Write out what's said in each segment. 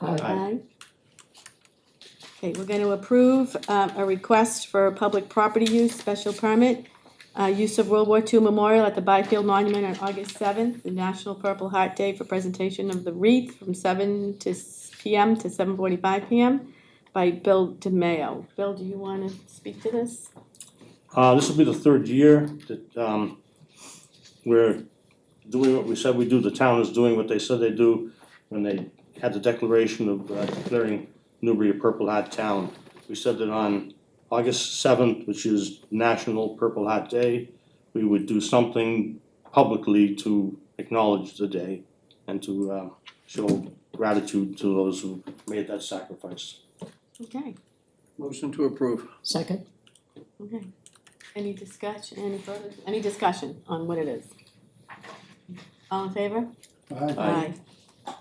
Aye. Aye. Okay, we're gonna approve uh, a request for public property use special permit, uh, use of World War II Memorial at the Byfield Monument on August seventh, the National Purple Heart Day for presentation of the wreath from seven to s- PM to seven forty-five PM by Bill DeMayo. Bill, do you wanna speak to this? Uh, this will be the third year that, um, we're doing what we said we do, the town is doing what they said they do when they had the declaration of uh, declaring Newbury a Purple Hat Town. We said that on August seventh, which is National Purple Hat Day, we would do something publicly to acknowledge the day and to, uh, show gratitude to those who made that sacrifice. Okay, Motion to approve. Second, okay. Any discussion, any further, any discussion on what it is? All in favor? Aye. Aye.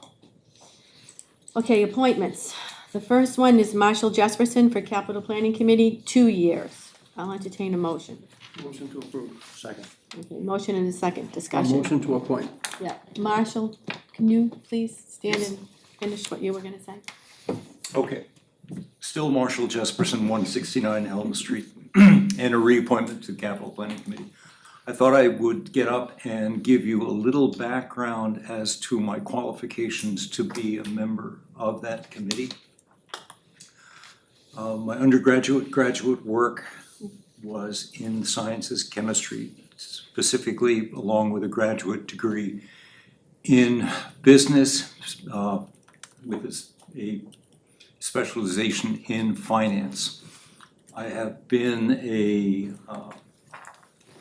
Okay, appointments. The first one is Marshall Jesperson for Capital Planning Committee, two years. I'll entertain a motion. Motion to approve. Second. Okay, Motion and a second A discussion. motion to appoint. Yeah, Marshall, can you please stand and finish what you were gonna say? Okay. Still Marshall Jesperson, one sixty-nine Elm Street, and a reappointment to Capital Planning Committee. I thought I would get up and give you a little background as to my qualifications to be a member of that committee. Uh, my undergraduate, graduate work was in sciences, chemistry, specifically along with a graduate degree in business, uh, with a s- a specialization in finance. I have been a uh,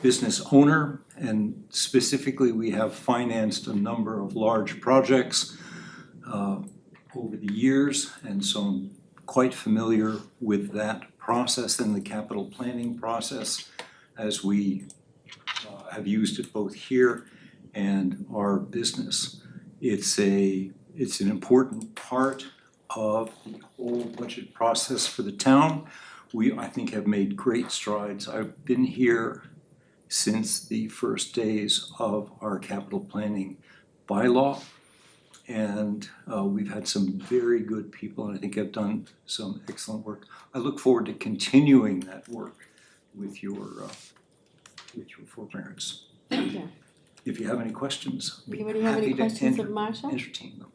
business owner, and specifically, we have financed a number of large projects uh, over the years, and so I'm quite familiar with that process and the capital planning process as we uh, have used it both here and our business. It's a, it's an important part of the whole budget process for the town. We, I think, have made great strides. I've been here since the first days of our capital planning bylaw. And uh, we've had some very good people, and I think have done some excellent work. I look forward to continuing that work with your, uh, with your forbearance. Thank you. If you have any questions, I'd be Anybody have happy any to questions of enter- Marshall? entertain them.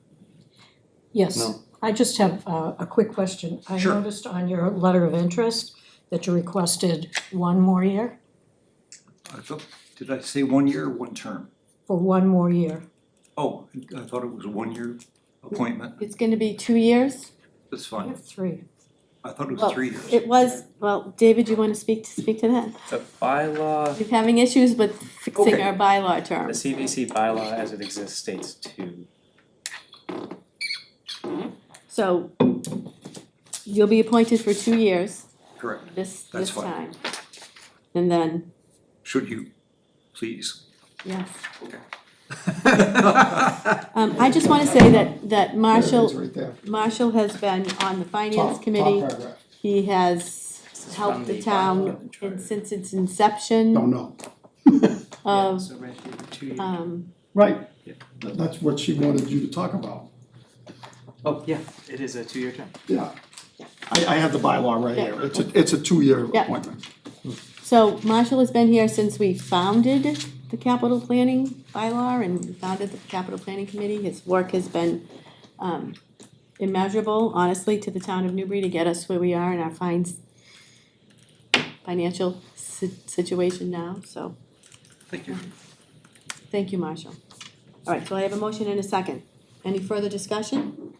yes. No. I just have uh, a quick question. I Sure. noticed on your letter of interest that you requested one more year, I thought, did I say one year or one term? for one more year. Oh, I thought it was a one-year appointment, It's gonna be two years? that's I fine. have three. I thought it Well, was three years. It was, well, David, you wanna speak, to speak to that? The bylaw, We're having issues with fixing Okay. our bylaw the term. CVC bylaw as it exists states two. So you'll be appointed for two years. Correct. this That's this time. fine. And then, Should you, please? yes, Right um, I just wanna say that that There Marshall, it is, right there. Marshall has been on the Top- finance top committee. paragraph. He has This is helped from the bylaw town and charter. in- since its inception Don't know. Yeah, of, so right here, two years. um, Right. Yeah. Th- That's what she wanted you to talk about. Oh, yeah, it is a two-year term. Yeah. I, I have the bylaw right here. It's a, it's a two-year Yeah. appointment. so Marshall has been here since we founded the capital planning bylaw and we founded the capital planning committee. His work has been, um, immeasurable, honestly, to the town of Newbury to get us where we are in our fines, financial si- situation now, so. Thank you. Thank you, Marshall. All right, so I have a motion and a second. Any further discussion?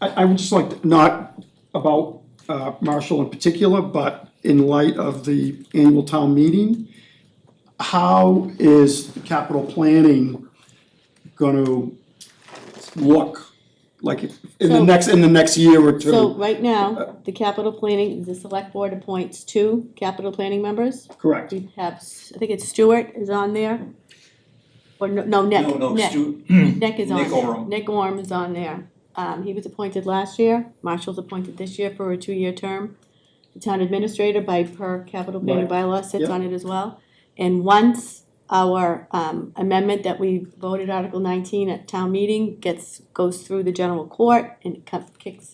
I, I would just like, to- not about uh, Marshall in particular, but in light of the annual town meeting, how is the capital planning gonna look like in So- the next, in the next year or two? So right now, the capital planning, the select board appoints two capital planning members. Correct. We have, S- I think it's Stewart is on there. Or no, no, Nick, No, no, Nick, Stu, Nick is on Nick there. Orme. Nick Orm is on there. Um, he was appointed last year. Marshall's appointed this year for a two-year term. The town administrator by per capital planning bylaw sits Yep. on it as well. And once our um, amendment that we voted Article nineteen at town meeting gets, goes through the general court and it co- kicks